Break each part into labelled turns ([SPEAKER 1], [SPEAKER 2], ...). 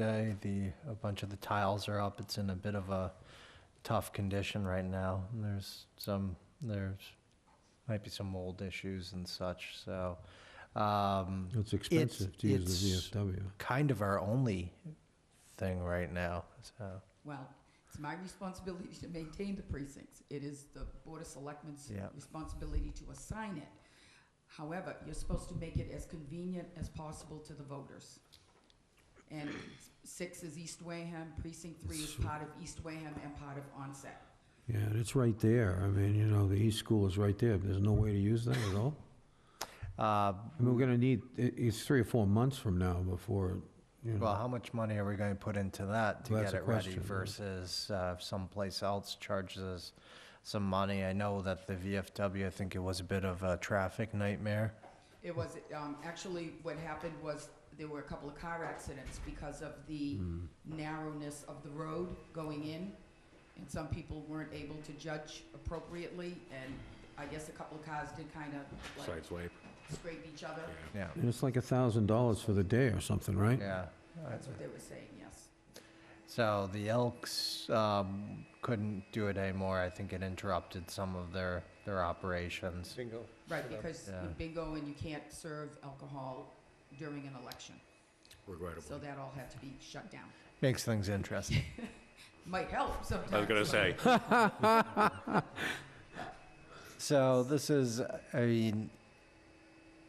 [SPEAKER 1] today. The, a bunch of the tiles are up. It's in a bit of a tough condition right now. And There's some, there's, might be some mold issues and such, so. um,
[SPEAKER 2] It's expensive to use
[SPEAKER 1] it's-
[SPEAKER 2] the VFW.
[SPEAKER 1] Kind of our only thing right now, so,
[SPEAKER 3] Well, it's my responsibility to maintain the precincts. It is the Board of Selectmen's
[SPEAKER 1] Yeah.
[SPEAKER 3] responsibility to assign it. However, you're supposed to make it as convenient as possible to the voters. And s- six is East Wareham, precinct three is part of East Wareham and part of Onset.
[SPEAKER 2] Yeah, and it's right there. I mean, you know, the East School is right there. There's no way to use that at all.
[SPEAKER 1] uh,
[SPEAKER 2] I mean, we're gonna need, it- it's three or four months from now before, you
[SPEAKER 1] well,
[SPEAKER 2] know.
[SPEAKER 1] how much money are we going to put into that to
[SPEAKER 2] Hmm. Well,
[SPEAKER 1] get
[SPEAKER 2] that's
[SPEAKER 1] it
[SPEAKER 2] a
[SPEAKER 1] ready
[SPEAKER 2] question, yeah.
[SPEAKER 1] versus uh, if someplace else charges us some money? I know that the VFW, I think it was a bit of a traffic nightmare.
[SPEAKER 3] It was, um, actually, what happened was there were a couple of car accidents because of the
[SPEAKER 4] Hmm.
[SPEAKER 3] narrowness of the road going in. And some people weren't able to judge appropriately, and I guess a couple of cars did kind of like
[SPEAKER 4] Sideswipe,
[SPEAKER 3] scrape each other.
[SPEAKER 1] Yeah,
[SPEAKER 2] And it's like a thousand dollars for the day or something, right?
[SPEAKER 1] yeah.
[SPEAKER 3] That's what they were saying, yes.
[SPEAKER 1] So the Elks um, couldn't do it anymore. I think it interrupted some of their, their operations.
[SPEAKER 4] Bingo.
[SPEAKER 3] Right, because
[SPEAKER 1] Yeah.
[SPEAKER 3] bingo and you can't serve alcohol during an election. So
[SPEAKER 4] Regrettable.
[SPEAKER 3] that all had to be shut down.
[SPEAKER 1] Makes things interesting.
[SPEAKER 3] Might help sometimes.
[SPEAKER 4] I was gonna
[SPEAKER 3] but-
[SPEAKER 4] say,
[SPEAKER 1] So this is, I mean,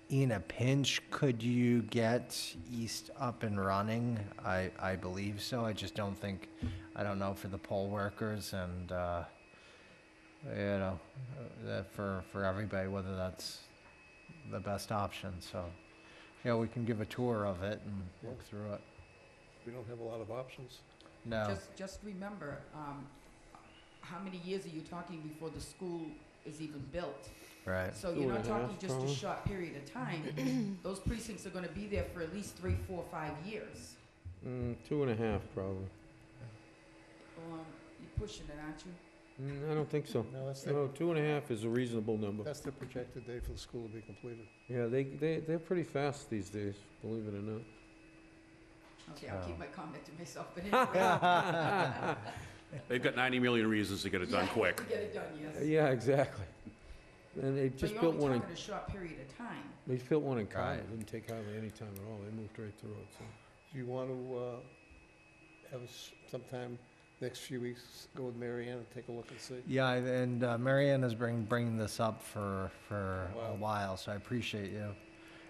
[SPEAKER 1] in a pinch, could you get East up and running? I, I believe so. I just don't think, I don't know for the poll workers and, uh, you know, uh, that for, for everybody, whether that's the best option. So, yeah, we can give a tour of it and look through it.
[SPEAKER 4] we don't have a lot of options.
[SPEAKER 1] No,
[SPEAKER 3] Just, just remember, um, how many years are you talking before the school is even built?
[SPEAKER 1] right.
[SPEAKER 3] So
[SPEAKER 2] Two
[SPEAKER 3] you're not
[SPEAKER 2] and a
[SPEAKER 3] talking
[SPEAKER 2] half,
[SPEAKER 3] just a
[SPEAKER 2] probably.
[SPEAKER 3] short period of time. Those precincts are gonna be there for at least three, four, five years.
[SPEAKER 2] Mm, Two and a half, probably.
[SPEAKER 3] Um, you're pushing it, aren't you?
[SPEAKER 2] Mm, I don't think so.
[SPEAKER 4] No, that's
[SPEAKER 2] No, two and a half is a reasonable number.
[SPEAKER 4] that's the projected day for the school to be completed.
[SPEAKER 2] Yeah, they, they, they're pretty fast these days, believe it or not.
[SPEAKER 3] Okay, I'll
[SPEAKER 1] Oh.
[SPEAKER 3] keep my comment to myself, but anyway.
[SPEAKER 4] They've got 90 million reasons to get it done
[SPEAKER 3] Yeah,
[SPEAKER 4] quick.
[SPEAKER 3] to Get it done, yes.
[SPEAKER 2] Yeah, exactly. And they
[SPEAKER 3] But
[SPEAKER 2] just
[SPEAKER 3] you're
[SPEAKER 2] built
[SPEAKER 3] only
[SPEAKER 2] one, in
[SPEAKER 3] talking a short period of time.
[SPEAKER 2] they built one in Carver.
[SPEAKER 1] Right.
[SPEAKER 2] Didn't take hardly any time at all. They moved right through it, so.
[SPEAKER 4] Do you want to uh, have sometime next few weeks, go with Mary Ann and take a look and see?
[SPEAKER 1] Yeah, and uh, Mary Ann has been bringing this up for, for a
[SPEAKER 4] Wow.
[SPEAKER 1] while, so I appreciate you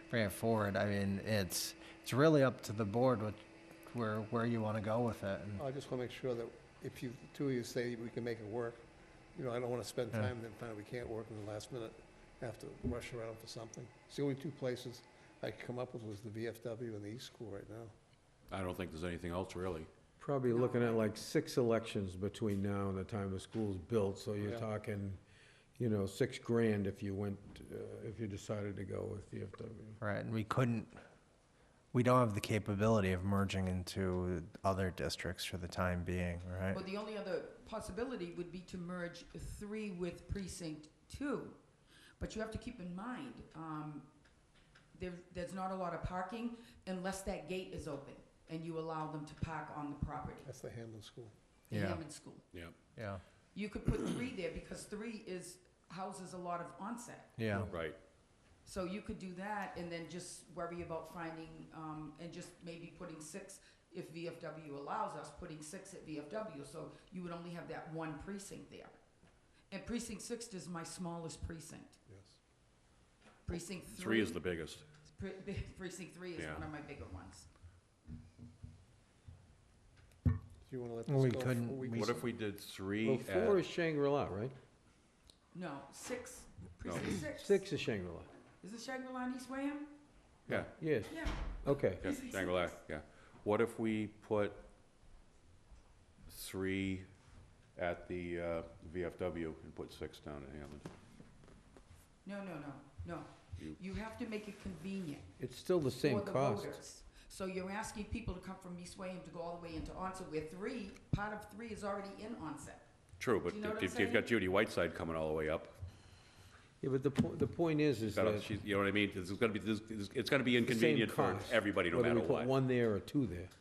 [SPEAKER 1] bringing it forward. I mean, it's, it's really up to the board what, where, where you want to go with it. and-
[SPEAKER 4] I just want to make sure that if you, two of you say we can make it work, you know, I don't want to spend
[SPEAKER 1] Yeah.
[SPEAKER 4] time then find out we can't work in the last minute, have to rush around for something. It's the only two places I could come up with was the VFW and the East School right now. I don't think there's anything else really.
[SPEAKER 2] Probably looking at like six elections between now and the time the school's built, so you're
[SPEAKER 4] Yeah.
[SPEAKER 2] talking, you know, six grand if you went, uh, if you decided to go with VFW.
[SPEAKER 1] Right, and we couldn't, we don't have the capability of merging into other districts for the time being, right?
[SPEAKER 3] Well, the only other possibility would be to merge three with precinct two. But you have to keep in mind, um, there, there's not a lot of parking unless that gate is open and you allow them to park on the property,
[SPEAKER 4] That's the Hamlin School.
[SPEAKER 3] the
[SPEAKER 1] Yeah.
[SPEAKER 3] Hammond School.
[SPEAKER 1] Yeah,
[SPEAKER 3] You could put three there because three is, houses a lot of onset.
[SPEAKER 1] yeah,
[SPEAKER 4] Right.
[SPEAKER 3] So you could do that and then just worry about finding, um, and just maybe putting six, if VFW allows us, putting six at VFW, so you would only have that one precinct there. And precinct six is my smallest precinct.
[SPEAKER 4] Yes.
[SPEAKER 3] Precinct three.
[SPEAKER 5] Three is the biggest.
[SPEAKER 3] pre- Precinct three is
[SPEAKER 5] Yeah.
[SPEAKER 3] one of my bigger ones.
[SPEAKER 4] Do you want to let this
[SPEAKER 1] Well,
[SPEAKER 4] go?
[SPEAKER 1] we
[SPEAKER 4] for
[SPEAKER 1] couldn't-
[SPEAKER 4] weeks?
[SPEAKER 1] we-
[SPEAKER 5] What if we did
[SPEAKER 2] Well,
[SPEAKER 5] three at,
[SPEAKER 2] four is Shangri-La, right?
[SPEAKER 3] No, six, precinct six.
[SPEAKER 2] Six is Shangri-La.
[SPEAKER 3] Is it Shangri-La and East Wareham?
[SPEAKER 5] yeah,
[SPEAKER 2] Yes,
[SPEAKER 3] Yeah,
[SPEAKER 2] okay.
[SPEAKER 5] yeah,
[SPEAKER 3] Precinct
[SPEAKER 5] Shangri-La,
[SPEAKER 3] six.
[SPEAKER 5] yeah. What if we put three at the uh, VFW and put six down at Hammond?
[SPEAKER 3] no, no, no, no.
[SPEAKER 5] You-
[SPEAKER 3] You have to make it convenient.
[SPEAKER 2] It's still the same
[SPEAKER 3] for the
[SPEAKER 2] cost.
[SPEAKER 3] voters. So you're asking people to come from East Wayham to go all the way into Onset, where three, part of three is already in Onset.
[SPEAKER 5] True, but
[SPEAKER 3] Do you know what I'm
[SPEAKER 5] if you've got
[SPEAKER 3] saying?
[SPEAKER 5] Judy Whiteside coming all the way up,
[SPEAKER 2] Yeah, but the po- the point is, is
[SPEAKER 5] that'll-
[SPEAKER 2] that
[SPEAKER 5] she's- you know what I mean? It's gonna be, this- it's gonna be
[SPEAKER 2] the same
[SPEAKER 5] inconvenient for
[SPEAKER 2] cost,
[SPEAKER 5] everybody no
[SPEAKER 2] whether
[SPEAKER 5] matter
[SPEAKER 2] we put
[SPEAKER 5] what.
[SPEAKER 2] one there or two there.